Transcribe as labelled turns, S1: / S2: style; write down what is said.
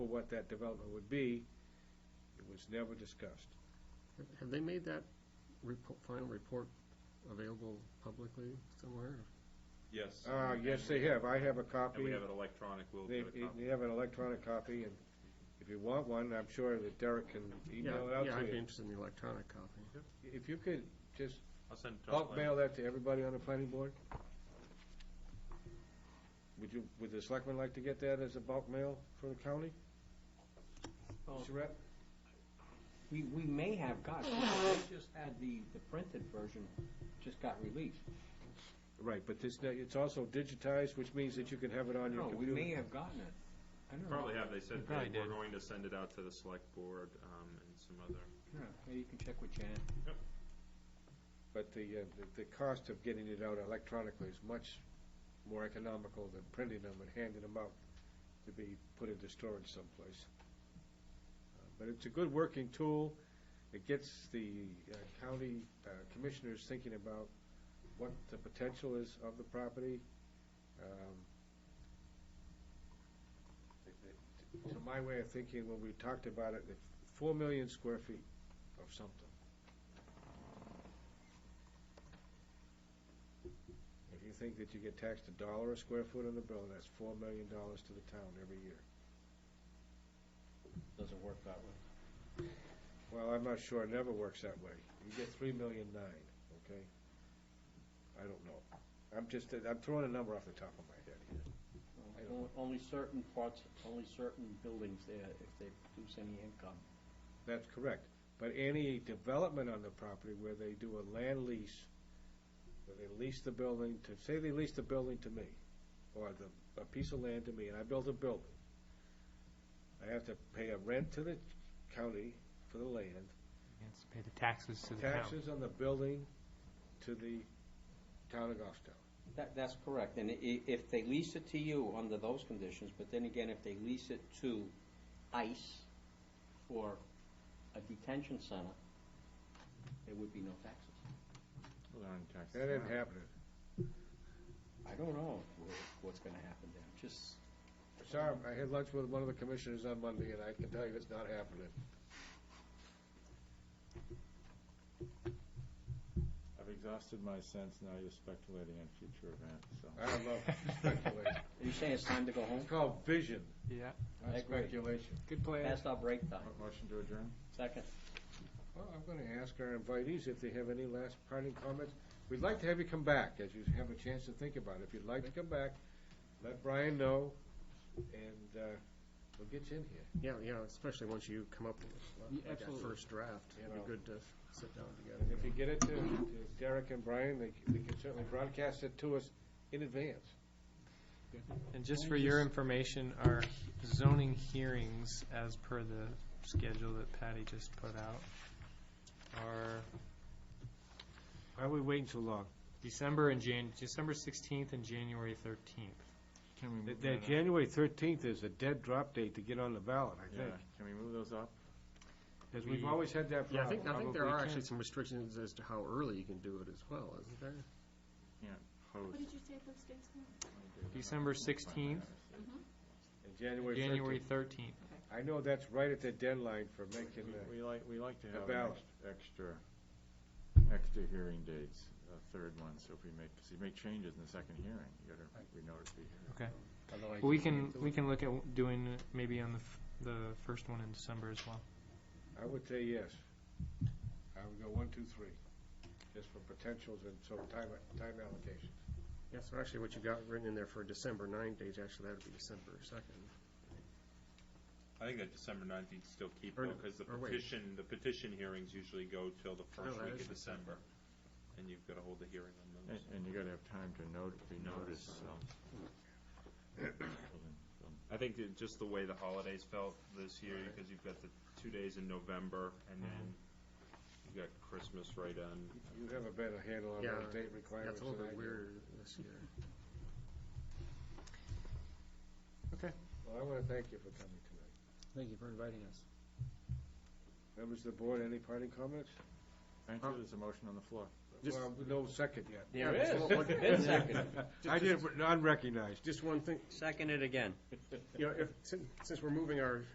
S1: for what that development would be. It was never discussed.
S2: Have- Have they made that repo final report available publicly somewhere?
S3: Yes.
S1: Uh, yes, they have. I have a
S3: And
S1: copy.
S3: we have it electronic, we'll
S1: They,
S3: get a copy.
S1: they have an electronic copy, and if you want one, I'm sure that Derek can
S2: Yeah,
S1: email it out
S2: Yeah, I'd
S1: to
S2: be
S1: you.
S2: interested in the electronic copy.
S1: If you could just
S3: I'll send it to
S1: bulk
S3: Tom.
S1: mail that to everybody on the planning board? Would you, would the selectmen like to get that as a bulk mail for the county?
S4: Well,
S1: Mr. Rep?
S4: We, we may have got, they just had the, the printed version just got released.
S1: Right, but this, it's also digitized, which means that you can have it on your
S4: No, we
S1: computer.
S4: may have gotten it. I don't know.
S3: Probably have, they said
S2: probably
S3: they were
S2: did.
S3: going to send it out to the select board, um, and some other,
S4: Yeah, maybe you can check with Janet.
S1: But the, uh, the- the cost of getting it out electronically is much more economical than printing them and handing them out to be put into storage someplace. Uh, But it's a good working tool. It gets the uh, county uh, commissioners thinking about what the potential is of the property. Um, it- it- To my way of thinking, when we talked about it, it's four million square feet of something. If you think that you get taxed a dollar a square foot on the bill, that's four million dollars to the town every year.
S4: Doesn't work that way.
S1: Well, I'm not sure, it never works that way. You get three million nine, okay? I don't know. I'm just, I'm throwing a number off the top of my head here. I don't-
S4: Only certain parts, only certain buildings there, if they produce any income.
S1: That's correct. But any development on the property where they do a land lease, where they lease the building to, say they lease the building to me, or the, a piece of land to me, and I build a building. I have to pay a rent to the county for the land,
S5: Yes, pay the taxes to the town.
S1: taxes on the building to the town of Goffstown.
S6: That, that's correct, and i- if they lease it to you under those conditions, but then again, if they lease it to ICE or a detention center, there would be no taxes.
S1: That ain't happening.
S6: I don't know wh- what's gonna happen there, just,
S1: Sorry, I had lunch with one of the commissioners on Monday, and I can tell you it's not happening.
S7: I've exhausted my sense, now you're speculating on future events, so.
S1: I love speculation.
S6: are you saying it's time to go home?
S1: It's called vision,
S5: Yeah.
S1: not
S6: I agree.
S1: speculation.
S5: Good plan.
S6: That's our break time,
S7: Mo- Motion to adjourn?
S6: second.
S1: Well, I'm going to ask our invitees if they have any last parting comments. We'd like to have you come back, as you have a chance to think about it. If you'd like to come back, let Brian know, and uh, we'll get you in here.
S2: Yeah, yeah, especially once you come up with like, that
S1: absolutely.
S2: first draft. It'd be
S1: Yeah.
S2: good to sit down
S1: And
S2: together.
S1: if you get it to to Derek and Brian, they c- they can certainly broadcast it to us in advance.
S5: And just for your information, our zoning hearings, as per the schedule that Patty just put out, are
S1: Why are we waiting so long?
S5: December and Jan, December sixteenth and January thirteenth.
S7: Can we
S1: The-
S7: move
S1: the
S7: that up?
S1: January 13th is a dead drop date to get on the ballot, I
S7: Yeah,
S1: think.
S7: can we move those up?
S1: Because we've
S5: We-
S1: always had that
S2: Yeah, I
S1: problem.
S2: think, I think there
S5: Probably
S2: are
S5: can.
S2: actually some restrictions as to how early you can do it as well, isn't there?
S7: Opposed.
S8: What did you say those dates were?
S5: December sixteenth,
S1: And January
S5: January
S1: 13th.
S5: thirteenth.
S1: I know that's right at the deadline for making
S7: We-
S1: the,
S7: We like, we like to
S1: a
S7: have an
S1: ballot.
S7: ex- extra, extra hearing dates, a third one, so if we make, because you make changes in the second hearing, you gotta, we know it's be here.
S2: Otherwise
S5: We
S2: you
S5: can,
S2: can't do
S5: we
S2: it.
S5: can look at doing it maybe on the, f- the first one in December as well.
S1: I would say yes. I would go one, two, three, just for potentials and so time, time allocation.
S2: Yeah, so actually what you got written in there for December nine date, actually that'd be December second.
S3: I think that December ninth you'd still keep
S2: Or
S3: though,
S2: no,
S3: because the
S2: or wait. Oh,
S3: petition, the petition hearings usually go till the first
S2: that
S3: week
S2: is
S3: of December. And you've got to hold the hearing on
S7: And,
S3: those.
S7: and you gotta have time to note, be noticed, so.
S3: I think that just the way the holidays felt this year, because you've got the two days in November and then
S7: Mm-hmm.
S3: you've got Christmas right on.
S1: You have a better handle on
S2: Yeah,
S1: those date
S2: That's
S1: requirements
S2: a little
S1: than I
S2: bit
S1: do.
S2: weird this year.
S1: Well, I want to thank you for coming tonight.
S4: Thank you for inviting us.
S1: Members of the board, any parting comments?
S7: Thank you, there's a motion on the floor.
S2: Just-
S1: Well, no second yet.
S2: Yeah,
S6: There
S2: just
S6: is.
S2: one- one-
S6: Been seconded.
S1: I did, unrecognized.
S2: Just one thing,
S6: Second it again.
S2: you know, if, since since we're moving our